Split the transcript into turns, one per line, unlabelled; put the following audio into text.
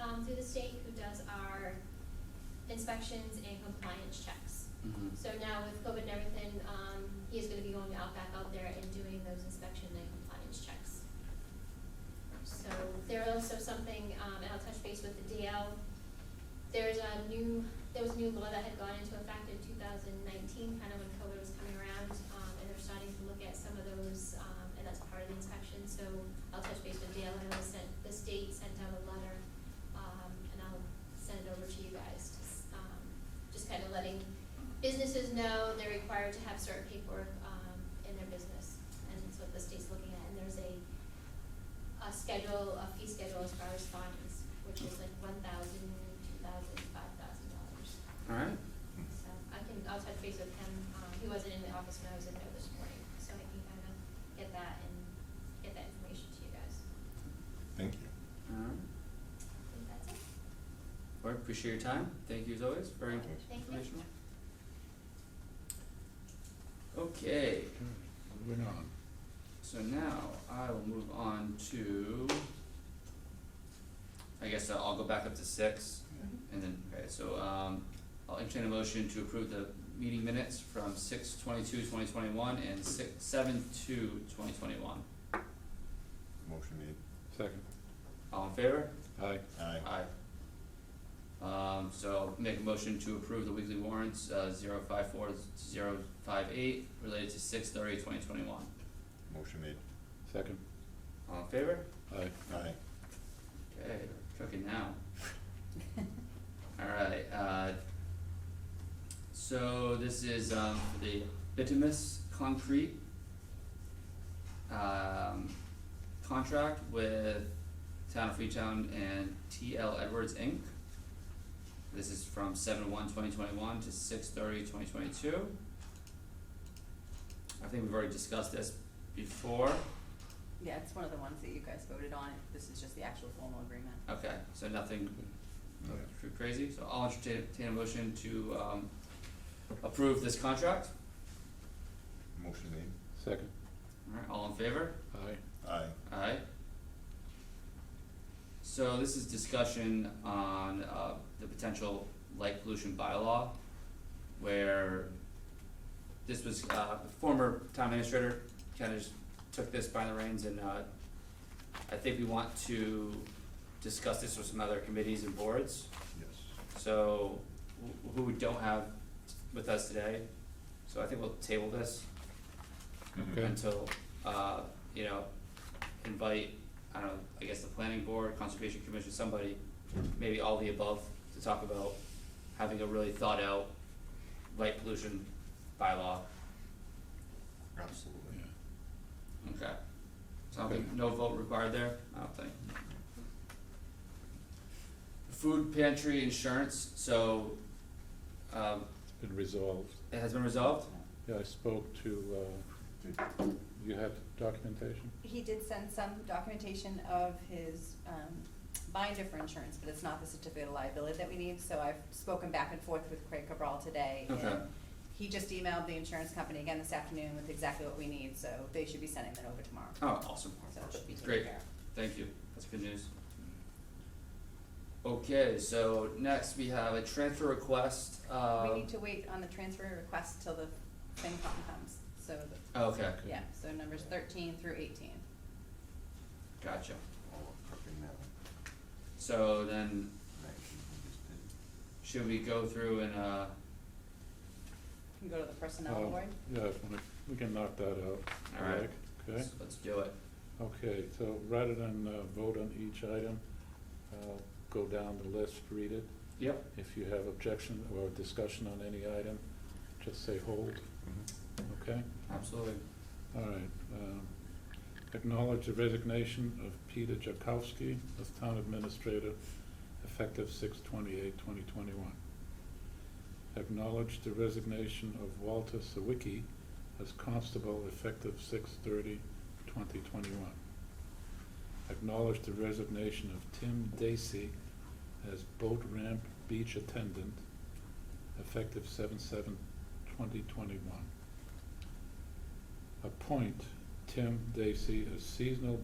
um, state who does our inspections and compliance checks.
Mhm.
So now with COVID and everything, um, he is gonna be going out back out there and doing those inspection and compliance checks. So there are also something, um, and I'll touch base with the DL. There's a new, there was a new law that had gone into effect in two thousand nineteen, kind of when COVID was coming around, um, and they're starting to look at some of those, um, and that's part of the inspection, so I'll touch base with DL, and I was sent, the state sent out a letter, um, and I'll send it over to you guys, to s- um, just kind of letting businesses know they're required to have certain paperwork, um, in their business, and that's what the state's looking at, and there's a a schedule, a fee schedule as far as fines, which is like one thousand, two thousand, five thousand dollars.
All right,
So I can, I'll touch base with him, um, he wasn't in the office when I was in there this morning, so I can kind of get that and get that information to you guys.
Thank you.
all right.
I think that's it.
Well, I appreciate your time. Thank you as always. Very
Thank you.
informational. Okay,
Moving on.
so now I will move on to. I guess I'll I'll go back up to six
Mm-hmm.
and then, okay, so um I'll entertain a motion to approve the meeting minutes from six twenty-two, twenty twenty-one and six, seven two, twenty twenty-one.
Motion made.
Second.
All in favor?
Aye.
Aye.
Aye. Um, so make a motion to approve the weekly warrants, uh, zero five four, zero five eight, related to six thirty, twenty twenty-one.
Motion made.
Second.
All in favor?
Aye.
Aye.
Okay, cooking now. Alright, uh, so this is, um, for the bituminous concrete, um, contract with Town of Freetown and TL Edwards Inc. This is from seven one twenty twenty-one to six thirty twenty twenty-two. I think we've already discussed this before,
Yeah, it's one of the ones that you guys voted on, this is just the actual formal agreement.
okay, so nothing
Aye.
Too crazy, so I'll entertain entertain a motion to um approve this contract.
Motion made.
Second.
Alright, all in favor?
Aye.
Aye.
Alright. So this is discussion on uh the potential light pollution bylaw where this was uh the former town administrator kinda just took this by the reins and uh I think we want to discuss this with some other committees and boards.
Yes.
So, wh- who we don't have with us today, so I think we'll table this
Okay.
until, uh, you know, invite, I don't know, I guess the planning board, conservation commission, somebody, maybe all the above, to talk about having a really thought out light pollution bylaw,
Absolutely.
okay? So I don't think, no vote required there, I don't think. Food pantry insurance, so, um,
It's been resolved.
it has been resolved?
Yeah, I spoke to, uh, you have documentation?
He did send some documentation of his um, binder for insurance, but it's not the certificate of liability that we need, so I've spoken back and forth with Craig Cabral today. and
Okay.
He just emailed the insurance company again this afternoon with exactly what we need, so they should be sending that over tomorrow,
Oh, awesome.
so it should be taken
Great.
care of.
Thank you. That's good news. Okay, so next we have a transfer request, uh.
We need to wait on the transfer request till the FinCom comes, so, the-
Oh, Okay,
yeah, so numbers thirteen through eighteen.
gotcha.
All cooking now.
So then,
Thank you. We just did.
should we go through and, uh,
Can go to the personnel
Um,
board.
Yeah, if we- we can knock that out.
Alright.
Rick, Okay?
let's, let's do it.
Okay, so rather than uh, vote on each item, uh, go down the list, read it.
Yep.
If you have objection or discussion on any item, just say hold,
Mm-hmm.
okay?
Absolutely.
All right. um, Acknowledge the resignation of Peter Jakowski as Town Administrator effective 6 2021 Acknowledge the resignation of Walter Sawicki as Constable effective 6 2021 Acknowledge the resignation of Tim Dacey as Boat Ramp Beach Attendant effective 7/7/2021 appoint Tim Dacey as seasonal